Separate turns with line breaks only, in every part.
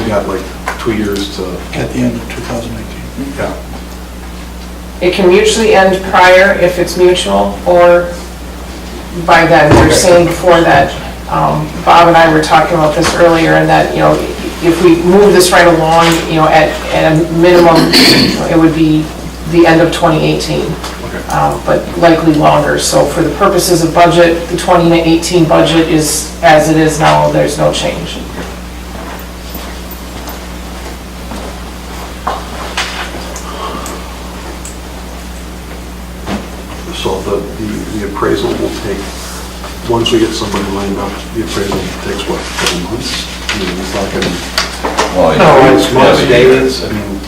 got like two years to,
at the end of 2019.
yeah,
It can mutually end prior if it's mutual, or by then, we were saying before that, um, Bob and I were talking about this earlier, and that, you know, if we move this right along, you know, at, at a minimum, it would be the end of 2018,
okay,
um, but likely longer. So for the purposes of budget, the 2018 budget is as it is now, there's no change.
so the, the- the appraisal will take, once we get somebody lined up, the appraisal takes what, four months? I mean, it's not gonna.
Oh,
No, it's most
days.
days,
I mean,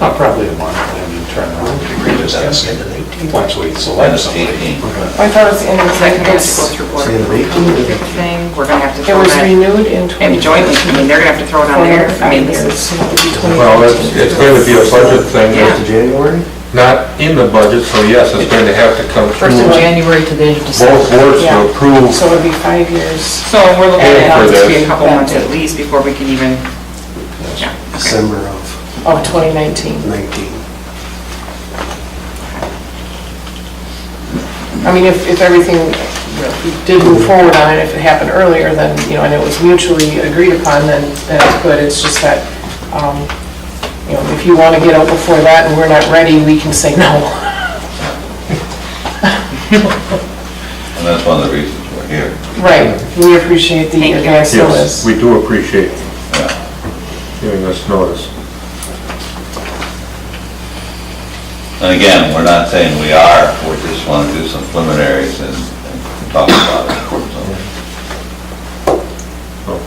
not probably a month, I mean, turn around. Once we select somebody.
okay,
I thought it was, in-
Second, we have to go through board
Say the
approval and everything, we're gonna have to
it
throw
was
that,
renewed in 20...
and jointly, I mean, they're gonna have to throw it on there, I mean, this is,
Well, it's, it's going to be a budget thing,
Yeah.
it's
January?
not in the budget, so yes, it's going to have to come
First of
through
January to the end of
both
December.
boards
Yeah.
to approve.
So it'd be five years.
so we're looking
Paying
at
for
it to be a
this.
couple months at least before we can even, yeah, okay.
December of
of 2019.
19.
I mean, if, if everything, you know, if we did move forward on it, if it happened earlier, then, you know, and it was mutually agreed upon, then, then it's good. It's just that, um, you know, if you want to get out before that and we're not ready, we can say no.
And that's one of the reasons we're here.
Right, we appreciate the
Thank you.
advance
Yes,
notice.
we do appreciate giving us notice.
And again, we're not saying we are, we just want to do some preliminaries and and talk about it. So,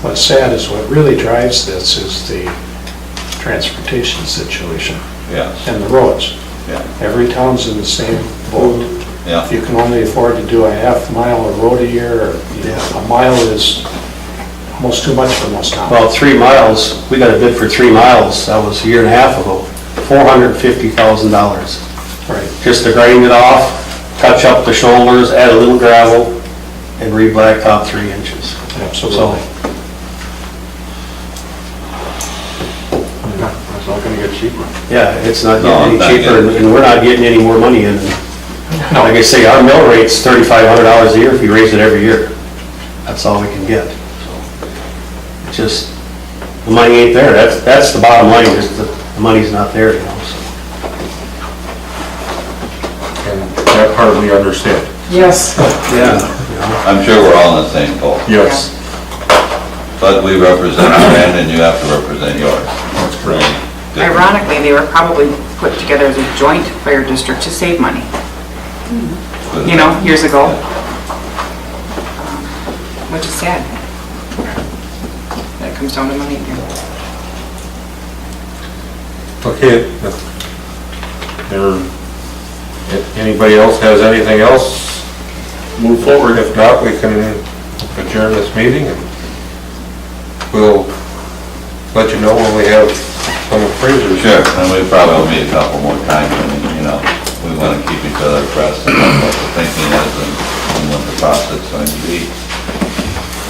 What's sad is what really drives this is the transportation situation
Yes,
and the roads.
yeah,
Every town's in the same boat.
yeah.
You can only afford to do a half mile of road a year, or you know, a mile is almost too much for most towns.
Well, three miles, we got a bid for three miles, that was a year and a half ago, four hundred and fifty thousand dollars.
Right.
Just to grind it off, touch up the shoulders, add a little gravel, and re-blacktop three inches. So,
Absolutely.
yeah, it's not gonna get cheaper.
yeah, it's not
No, I'm
getting
not
any cheaper,
getting-
and we're not getting any more money in. Like I say, our mill rate's thirty-five hundred dollars a year if you raise it every year. That's all we can get, so. It's Just, the money ain't there, that's, that's the bottom line, is the, the money's not there, you know, so.
And that part we understand.
Yes,
Yeah.
I'm sure we're all in the same boat,
Yes,
but we represent our end and you have to represent yours. That's correct.
Ironically, they were probably put together as a joint fire district to save money, you know, years ago. Um, Which is sad. That comes down to money here.
okay. There, if anybody else has anything else, move forward. If not, we can adjourn this meeting and we'll let you know when we have some appraisers.
Sure, and we probably will meet a couple more times, and, you know, we want to keep each other abreast of what the thinking is and and what the process is going to be.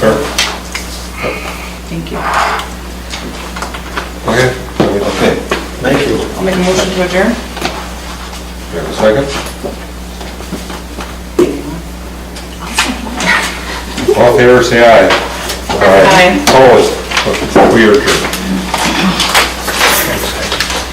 Sure.
Thank you.
Okay,
Okay.
Thank you.
I'll make a motion to adjourn.
you have a second? All in favor, say aye. Aye. Opposed? We are adjourned.